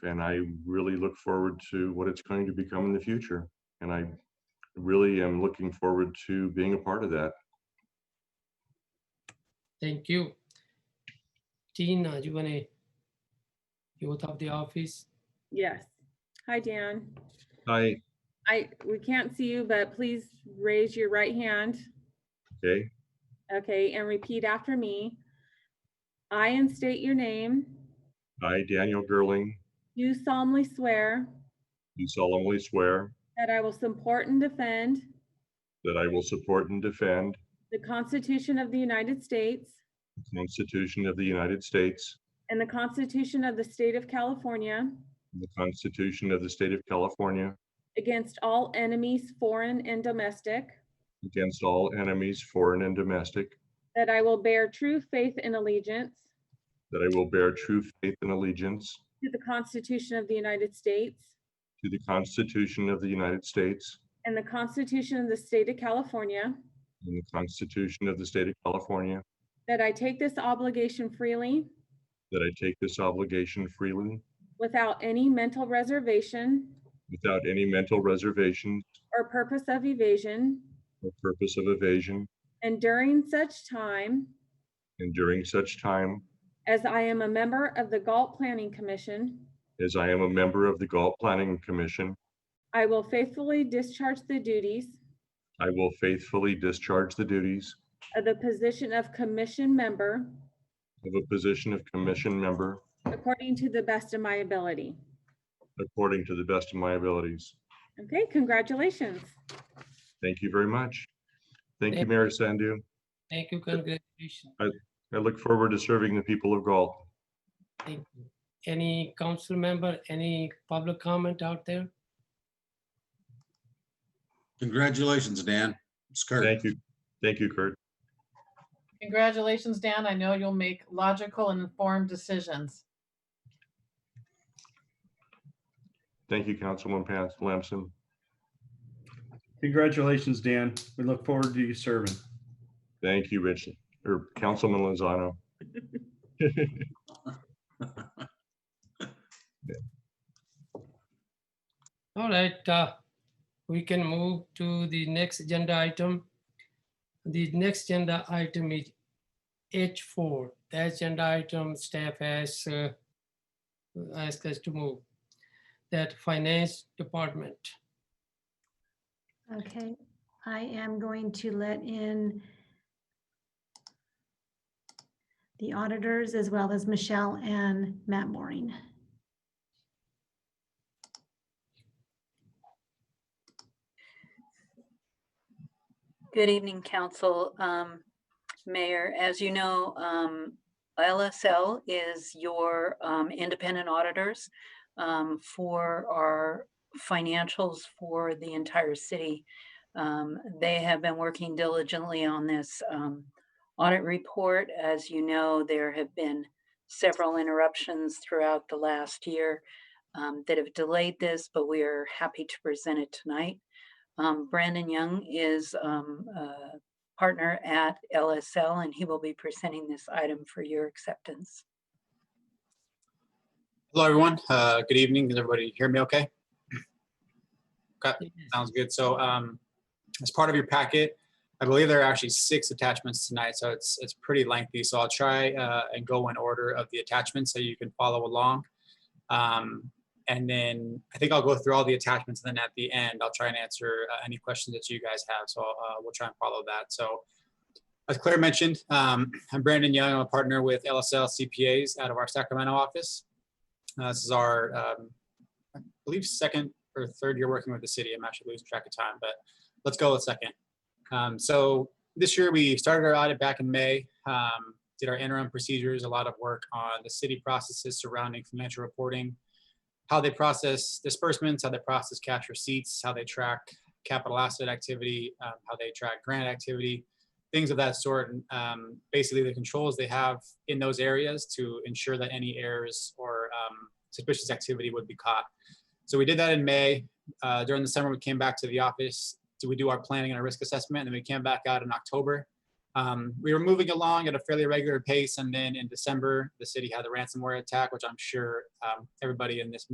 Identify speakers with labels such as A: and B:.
A: and I really look forward to what it's going to become in the future. And I really am looking forward to being a part of that.
B: Thank you. Tina, you want to youth of the office?
C: Yes. Hi, Dan.
A: Hi,
C: I, we can't see you, but please raise your right hand.
A: okay,
C: Okay, and repeat after me. I instate your name.
A: I, Daniel Gerling,
C: You solemnly swear
A: do solemnly swear
C: that I will support and defend
A: that I will support and defend
C: the Constitution of the United States
A: the Constitution of the United States
C: and the Constitution of the State of California
A: and the Constitution of the State of California
C: against all enemies, foreign and domestic,
A: against all enemies, foreign and domestic,
C: that I will bear true faith and allegiance
A: that I will bear true faith and allegiance
C: to the Constitution of the United States
A: to the Constitution of the United States
C: and the Constitution of the State of California,
A: and the Constitution of the State of California,
C: That I take this obligation freely,
A: that I take this obligation freely
C: without any mental reservation
A: without any mental reservation
C: or purpose of evasion,
A: or purpose of evasion,
C: and during such time
A: and during such time
C: as I am a member of the Galt Planning Commission,
A: as I am a member of the Galt Planning Commission,
C: I will faithfully discharge the duties
A: I will faithfully discharge the duties
C: of the position of commission member
A: of a position of commission member
C: according to the best of my ability.
A: according to the best of my abilities.
C: Okay, congratulations.
A: Thank you very much. Thank you,
B: Thank-
A: Mayor Sandu.
B: Thank you, congratulations.
A: I look forward to serving the people of Galt.
B: Thank you. Any council member, any public comment out there?
D: Congratulations, Dan. It's Kurt.
A: Thank you. Thank you, Kurt.
E: Congratulations, Dan. I know you'll make logical and informed decisions.
A: Thank you, Councilman Pans- Lamson.
F: Congratulations, Dan. We look forward to you serving.
A: Thank you, Rich, or Councilman Lozano.
B: All right, uh, we can move to the next agenda item. The next agenda item is H4. That agenda item staff has uh, asked us to move. That finance department.
G: Okay, I am going to let in the auditors as well as Michelle and Matt Mooring.
H: Good evening, council. Um, Mayor, as you know, um, LSL is your um, independent auditors um, for our financials for the entire city. Um, They have been working diligently on this um, audit report. As you know, there have been several interruptions throughout the last year um, that have delayed this, but we are happy to present it tonight. Um, Brandon Young is um, a partner at LSL, and he will be presenting this item for your acceptance.
D: Hello, everyone. Uh, Good evening. Can everybody hear me okay? Sounds good. So um, as part of your packet, I believe there are actually six attachments tonight, so it's, it's pretty lengthy. So I'll try uh, and go in order of the attachments so you can follow along. Um, And then I think I'll go through all the attachments, and then at the end, I'll try and answer uh, any questions that you guys have. So uh, we'll try and follow that. So as Claire mentioned, um, I'm Brandon Young. I'm a partner with LSL CPAs out of our Sacramento office. Uh, This is our, um, I believe, second or third year working with the city. I'm actually losing track of time, but let's go with second. Um, so this year we started our audit back in May, um, did our interim procedures, a lot of work on the city processes surrounding financial reporting, how they process disbursements, how they process cash receipts, how they track capital asset activity, um, how they track grant activity, things of that sort. And um, basically the controls they have in those areas to ensure that any errors or um, suspicious activity would be caught. So we did that in May. Uh, during the summer, we came back to the office. So we do our planning and our risk assessment, and then we came back out in October. Um, we were moving along at a fairly regular pace, and then in December, the city had the ransomware attack, which I'm sure um, everybody in this